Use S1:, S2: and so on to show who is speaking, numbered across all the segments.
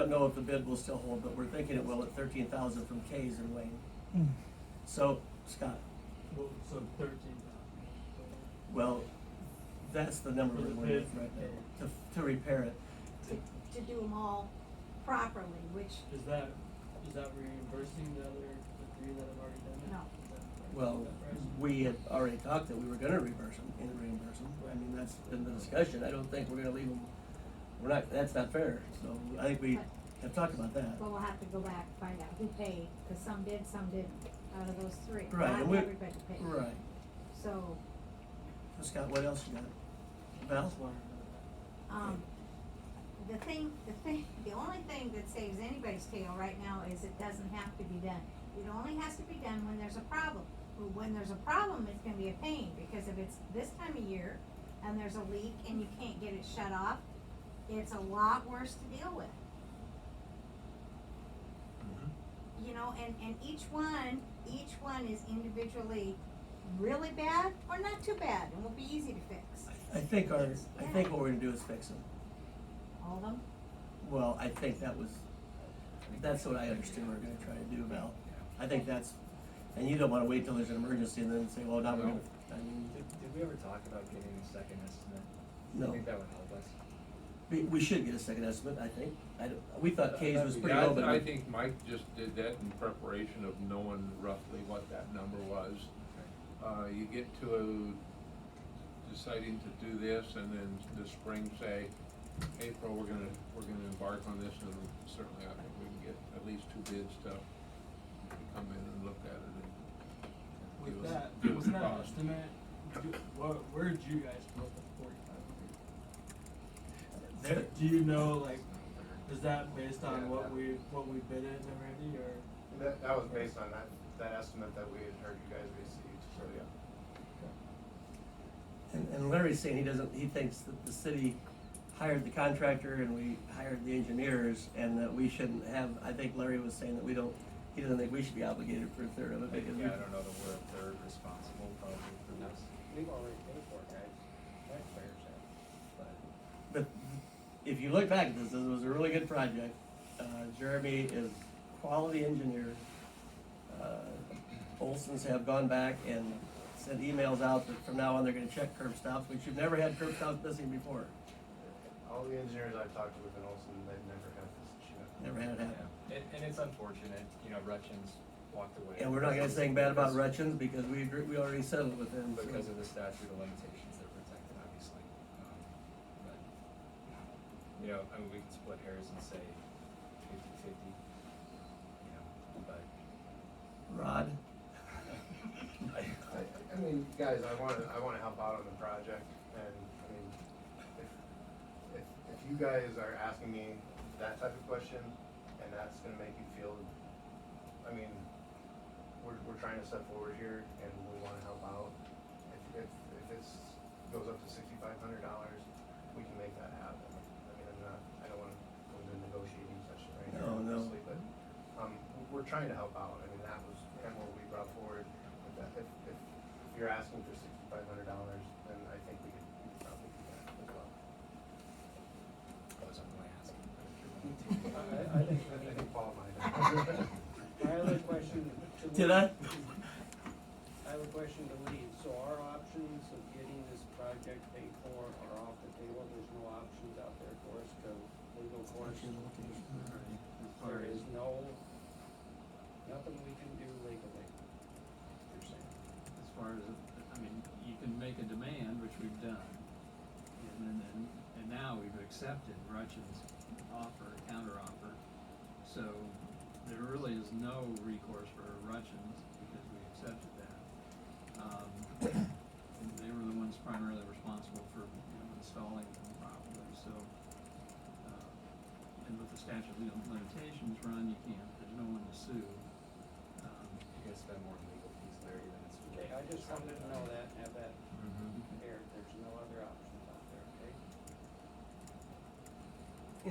S1: don't know if the bid will still hold, but we're thinking it will at thirteen thousand from K's and Wayne. So, Scott,
S2: Well, so thirteen
S1: well, that's the number we're with right now, to, to repair it.
S3: to, to do them all properly, which,
S2: Is that, is that reimbursing the other, the three that have already done it?
S3: No.
S2: Is that right?
S1: Well,
S2: Is that right?
S1: we had already talked that we were gonna reimburse them, and reimburse them, I mean, that's in the discussion, I don't think we're gonna leave them, we're not, that's not fair, so I think we have talked about that.
S3: well, we'll have to go back, find out who paid, cause some did, some didn't, out of those three.
S1: Right, and
S3: Not
S1: we-
S3: everybody paid.
S1: Right,
S3: So,
S1: So Scott, what else you got? Val?
S2: Just wondering about
S3: um, the thing, the thing, the only thing that saves anybody's tail right now is it doesn't have to be done. It only has to be done when there's a problem. But When there's a problem, it's gonna be a pain, because if it's this time of year and there's a leak and you can't get it shut off, it's a lot worse to deal with. you know, and, and each one, each one is individually really bad or not too bad and will be easy to fix.
S1: I think our, I think what we're gonna do is fix them,
S3: All of them?
S1: well, I think that was, that's what I understood we're gonna try to do, Val. I think that's, and you don't wanna wait till there's an emergency and then say, well, now we're gonna, I mean,
S4: Did, did we ever talk about getting a second estimate? I
S1: no.
S4: think that would help us.
S1: We, we should get a second estimate, I think, I, don't- we thought K's was pretty
S5: Yeah, I-
S1: low, but.
S5: I
S1: we-
S5: think Mike just did that in preparation of knowing roughly what that number was. Uh, you get to deciding to do this and then this spring say, April, we're gonna, we're gonna embark on this and certainly I think we can get at least two bids to come in and look at it and.
S2: that.
S5: give
S2: With
S5: us-
S2: that,
S5: give us
S2: wasn't
S5: the
S2: that an
S5: cost.
S2: estimate, do, where, where'd you guys put the forty-five
S1: There-
S2: hundred? Do you know, like, is that based
S6: Yeah,
S2: on what
S6: that-
S2: we, what we bid it and everything, or?
S6: That, that was based on that, that estimate that we had heard you guys received, so yeah.
S1: And, and Larry's saying he doesn't, he thinks that the city hired the contractor and we hired the engineers and that we shouldn't have, I think Larry was saying that we don't, he doesn't think we should be obligated for a third of it because we.
S4: Yeah, I don't know that we're a third responsible probably for this. We've already paid for it, guys. Taxpayers have. But
S1: But if you look back, this, this was a really good project. Uh, Jeremy is quality engineer. Uh, Olson's have gone back and sent emails out that from now on they're gonna check curb stops, which you've never had curb stops missing before.
S6: All the engineers I've talked to within Olson, they've never had this issue.
S1: Never had it happen.
S4: yeah, and, and it's unfortunate, you know, Rutchins walked away.
S1: And we're not gonna
S4: because-
S1: say bad about
S4: because-
S1: Rutchins because we agree, we already settled with them. so-
S4: Because of the statute of limitations that protect it, obviously. Um, But, you know, I mean, we can split hairs and say fifty-fifty, you know, but
S1: Rod,
S6: I, I mean, guys, I wanna, I wanna help out on the project, and, I mean, if, if, if you guys are asking me that type of question, and that's gonna make you feel, I mean, we're, we're trying to step forward here, and we wanna help out. If, if, if it's, goes up to sixty-five hundred dollars, we can make that happen. I mean, I'm not, I don't wanna go into a negotiating session right now,
S1: No, no.
S6: obviously, but, um, we're- we're trying to help out, I mean, that was kind of what we brought forward. If, that- if, if if you're asking for sixty-five hundred dollars, then I think we could, we could probably do that as well.
S4: I wasn't really asking. but if you're willing to-
S6: I, I think, I think Paul might.
S7: I have a question to.
S1: did I?
S7: I have a question to Lee. So our options of getting this project paid for are off the table. There's no options out there for us to legal course. There is no, nothing we can do legally. You're saying.
S8: as far as, I mean, you can make a demand, which we've done. And then, and, and now we've accepted Rutch's offer, counteroffer. So there really is no recourse for Rutchins because we accepted that. Um, and they were the ones primarily responsible for, you know, installing them properly, so. uh, And with the statute of limitations run, you can't, there's no one to sue. Um,
S4: You're gonna spend more on legal fees, Larry, than it's. Mm-hmm.
S7: Okay, I just wanted to know that and have that aired. There's no other options out there, okay?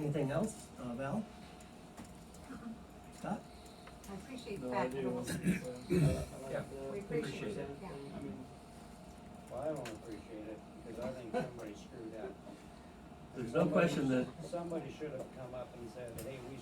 S1: Anything else, uh, Val? Scott?
S3: I appreciate the
S2: No, I
S3: fact that
S2: do.
S3: it was, we
S4: Yeah,
S2: We
S3: appreciate it, yeah.
S2: I mean,
S7: Well, I don't appreciate it because I think somebody screwed up.
S1: There's no question that
S7: Somebody should have come up and said, hey, we